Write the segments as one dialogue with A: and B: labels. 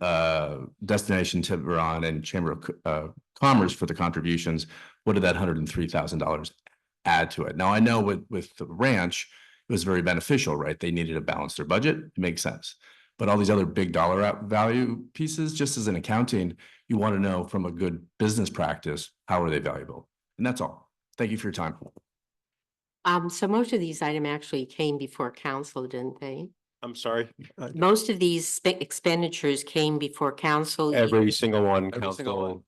A: uh, Destination Tiburon and Chamber of Co- uh, Commerce for the contributions, what did that hundred and three thousand dollars add to it? Now, I know with, with the ranch, it was very beneficial, right? They needed to balance their budget. It makes sense. But all these other big dollar out- value pieces, just as in accounting, you want to know from a good business practice, how are they valuable? And that's all. Thank you for your time.
B: Um, so most of these item actually came before council, didn't they?
C: I'm sorry.
B: Most of these spe- expenditures came before council.
C: Every
B: either-
C: single one,
D: Every single
C: council.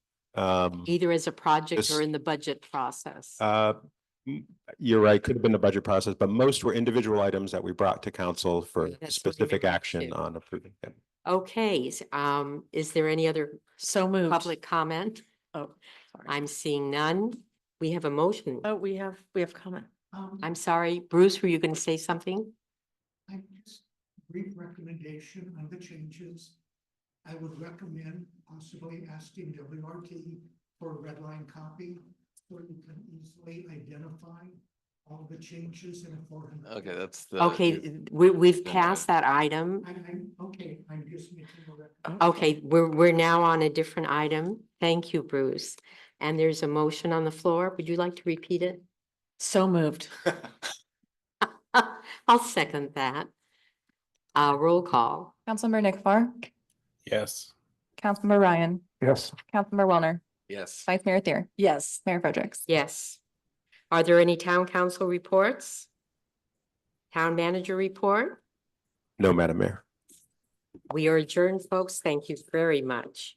C: Um,
B: Either as a project
C: This-
B: or in the budget process.
C: uh, m- you're right, could have been the budget process, but most were individual items that we brought to council for
B: Yeah, that's what we
C: specific
B: remember
C: action
B: too.
C: on approving them.
B: Okay, s- um, is there any other
E: So moved.
B: public comment?
E: Oh, sorry.
B: I'm seeing none. We have a motion.
E: Oh, we have, we have comment.
B: I'm sorry, Bruce, were you going to say something?
F: I just brief recommendation on the changes. I would recommend possibly asking WRT for a red line copy so you can easily identify all the changes in a four hundred.
D: Okay, that's
C: Uh,
D: the.
B: Okay,
D: new-
B: th- we, we've
D: no, no.
B: passed that item.
F: I, I, okay, I'm just making a recommendation.
E: Oh,
B: Okay, we're, we're now on a different item. Thank you, Bruce. And there's a motion on the floor. Would you like to repeat it?
E: So moved.
B: I'll second that. Uh, roll call.
G: Councilmember Nick Farr,
D: Yes.
G: Councilmember Ryan,
F: Yes.
G: Councilmember Wellner,
D: Yes.
G: Vice Mayor Thier,
E: Yes.
G: Mayor Fredericks.
B: Yes. Are there any town council reports? Town manager report?
C: No, Madam Mayor.
B: We are adjourned, folks. Thank you very much.